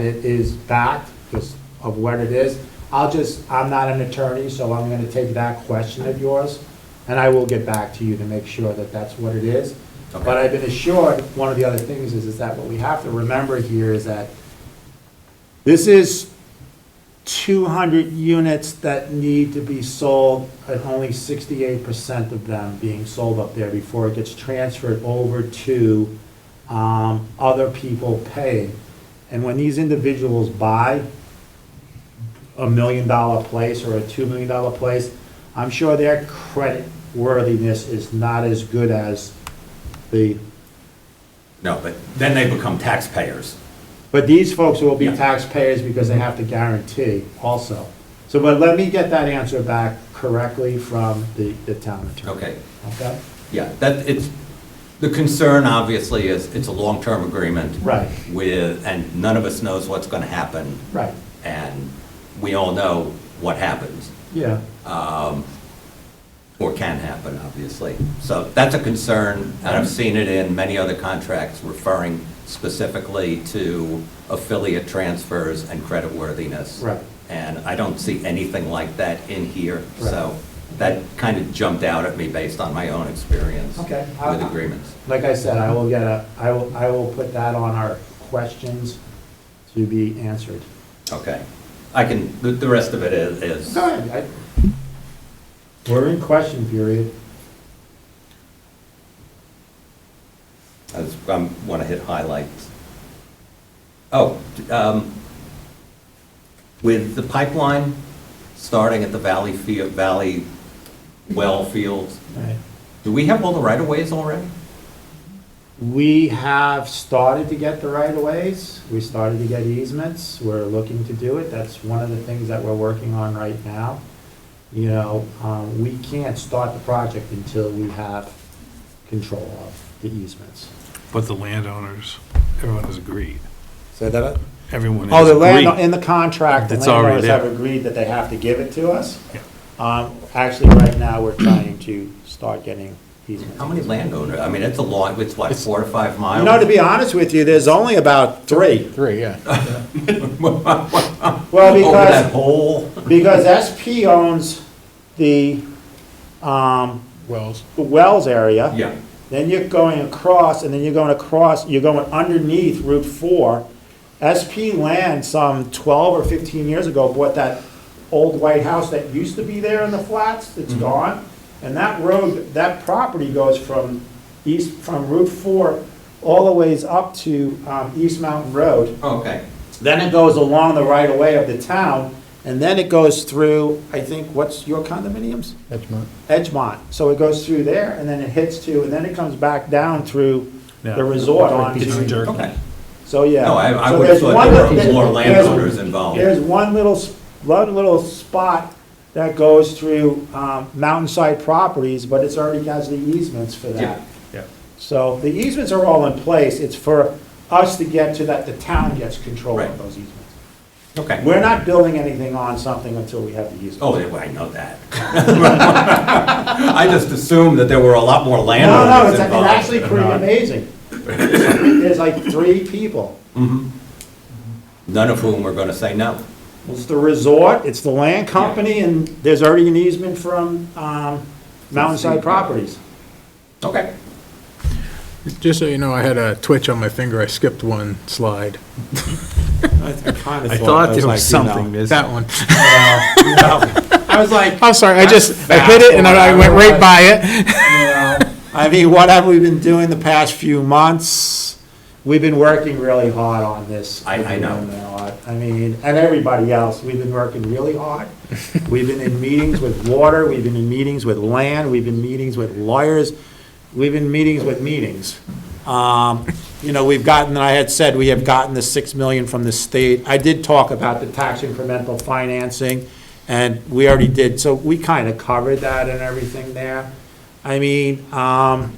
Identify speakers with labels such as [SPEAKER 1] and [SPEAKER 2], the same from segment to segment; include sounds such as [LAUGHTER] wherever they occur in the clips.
[SPEAKER 1] it is backed because of what it is. I'll just, I'm not an attorney, so I'm going to take that question of yours, and I will get back to you to make sure that that's what it is.
[SPEAKER 2] Okay.
[SPEAKER 1] But I've been assured, one of the other things is, is that what we have to remember here is that this is 200 units that need to be sold, and only 68% of them being sold up there before it gets transferred over to um, other people paying. And when these individuals buy a million-dollar place or a $2 million place, I'm sure their credit worthiness is not as good as the,
[SPEAKER 2] No, but then they become taxpayers.
[SPEAKER 1] but these folks will be
[SPEAKER 2] Yeah.
[SPEAKER 1] taxpayers because they have to guarantee also. So, but let me get that answer back correctly from the, the town attorney.
[SPEAKER 2] Okay,
[SPEAKER 1] Okay?
[SPEAKER 2] yeah, that, it's, the concern obviously is, it's a long-term agreement.
[SPEAKER 1] Right.
[SPEAKER 2] With, and none of us knows what's gonna happen.
[SPEAKER 1] Right,
[SPEAKER 2] And we all know what happens,
[SPEAKER 1] yeah,
[SPEAKER 2] or can happen, obviously. So that's a concern, and
[SPEAKER 1] Mm-hmm.
[SPEAKER 2] I've seen it in many other contracts referring specifically to affiliate transfers and creditworthiness.
[SPEAKER 1] Right.
[SPEAKER 2] And I don't see anything like that in here,
[SPEAKER 1] Right.
[SPEAKER 2] so that kind of jumped out at me based on my own experience.
[SPEAKER 1] Okay.
[SPEAKER 2] With agreements.
[SPEAKER 1] like I said, I will get a, I will, I will put that on our questions to be answered.
[SPEAKER 2] Okay. I can, the, the rest of it is, is,
[SPEAKER 1] Go ahead. I- We're in question period.
[SPEAKER 2] I want to hit highlights. Oh, um, with the pipeline starting at the Valley Field, Valley Well Fields, do we have all the right-of-ways already?
[SPEAKER 1] We have started to get the right-of-ways, we started to get easements, we're looking to do it, that's one of the things that we're working on right now. You know, um, we can't start the project until we have control of the easements.
[SPEAKER 3] But the landowners, everyone has agreed.
[SPEAKER 1] Say that
[SPEAKER 3] Everyone
[SPEAKER 1] Oh,
[SPEAKER 3] has
[SPEAKER 1] the land,
[SPEAKER 3] agreed.
[SPEAKER 1] in the contract, the
[SPEAKER 3] It's already
[SPEAKER 1] landowners have
[SPEAKER 3] there.
[SPEAKER 1] agreed that they have to give it to us.
[SPEAKER 3] Yeah.
[SPEAKER 1] Um, actually, right now, we're trying to start getting easements.
[SPEAKER 2] How many landowners? I mean, it's a long, it's what,
[SPEAKER 1] It's-
[SPEAKER 2] four to five miles?
[SPEAKER 1] You know, to be honest with you, there's only about three.
[SPEAKER 2] [LAUGHS]
[SPEAKER 4] Three, yeah.
[SPEAKER 1] Well,
[SPEAKER 2] Over that
[SPEAKER 1] because,
[SPEAKER 2] whole,
[SPEAKER 1] because SP owns the, um,
[SPEAKER 4] Wells.
[SPEAKER 1] the Wells area.
[SPEAKER 2] yeah,
[SPEAKER 1] Then you're going across, and then you're going across, you're going underneath Route 4. SP Land, some 12 or 15 years ago, bought that old white house that used to be there in the flats, it's gone. And that road, that property goes from east, from Route 4 all the ways up to um, East Mountain Road.
[SPEAKER 2] okay.
[SPEAKER 1] Then it goes along the right of way of the town, and then it goes through, I think, what's your condominiums?
[SPEAKER 4] That's mine.
[SPEAKER 1] Edgemont. So it goes through there and then it hits to, and then it comes back down through
[SPEAKER 3] Yeah.
[SPEAKER 1] the resort on.
[SPEAKER 3] It's
[SPEAKER 1] to-
[SPEAKER 3] jerk.
[SPEAKER 2] Okay.
[SPEAKER 1] So, yeah.
[SPEAKER 2] No, I- I
[SPEAKER 1] So
[SPEAKER 2] would've
[SPEAKER 1] there's
[SPEAKER 2] thought
[SPEAKER 1] one
[SPEAKER 2] there
[SPEAKER 1] li-
[SPEAKER 2] were more
[SPEAKER 1] there's-
[SPEAKER 2] landowners involved.
[SPEAKER 1] There's one little, s- one little spot that goes through um, Mountainside Properties, but it's already has the easements for
[SPEAKER 2] Yeah.
[SPEAKER 1] that.
[SPEAKER 3] Yeah.
[SPEAKER 1] So the easements are all in place. It's for us to get to that, the town gets control of
[SPEAKER 2] Right.
[SPEAKER 1] those easements.
[SPEAKER 2] Okay.
[SPEAKER 1] We're not building anything on something until we have the easement.
[SPEAKER 2] Oh, yeah, I know that. [LAUGHS] I just assumed that there were a lot more
[SPEAKER 1] No, no,
[SPEAKER 2] landowners
[SPEAKER 1] it's it's
[SPEAKER 2] involved.
[SPEAKER 1] actually pretty amazing. There's like three people.
[SPEAKER 2] None of whom were going to say no.
[SPEAKER 1] It's the resort, it's the land company, and there's already an easement from um, Mountainside Properties.
[SPEAKER 2] Okay.
[SPEAKER 4] Just so you know, I had a twitch on my finger. I skipped one slide.
[SPEAKER 3] I thought there was something missing.
[SPEAKER 4] That one.
[SPEAKER 1] I was like,
[SPEAKER 4] [LAUGHS] I'm sorry, I just, I hit it and I went right by it.
[SPEAKER 1] I mean, what have we been doing the past few months? We've been working really hard on this.
[SPEAKER 2] I- I know.
[SPEAKER 1] I mean, and everybody else, we've been working really hard. We've been in meetings with water, we've been in meetings with land, we've been meetings with lawyers, we've been meetings with meetings. Um, You know, we've gotten, I had said, we have gotten the six million from the state. I did talk about the tax incremental financing, and we already did, so we kind of covered that and everything there. I mean, um,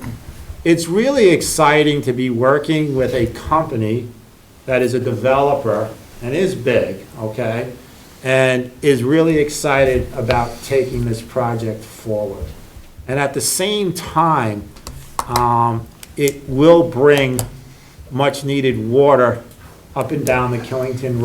[SPEAKER 1] it's really exciting to be working with a company that is a developer and is big, okay? And is really excited about taking this project forward. And at the same time, um, it will bring much-needed water up and down the Killington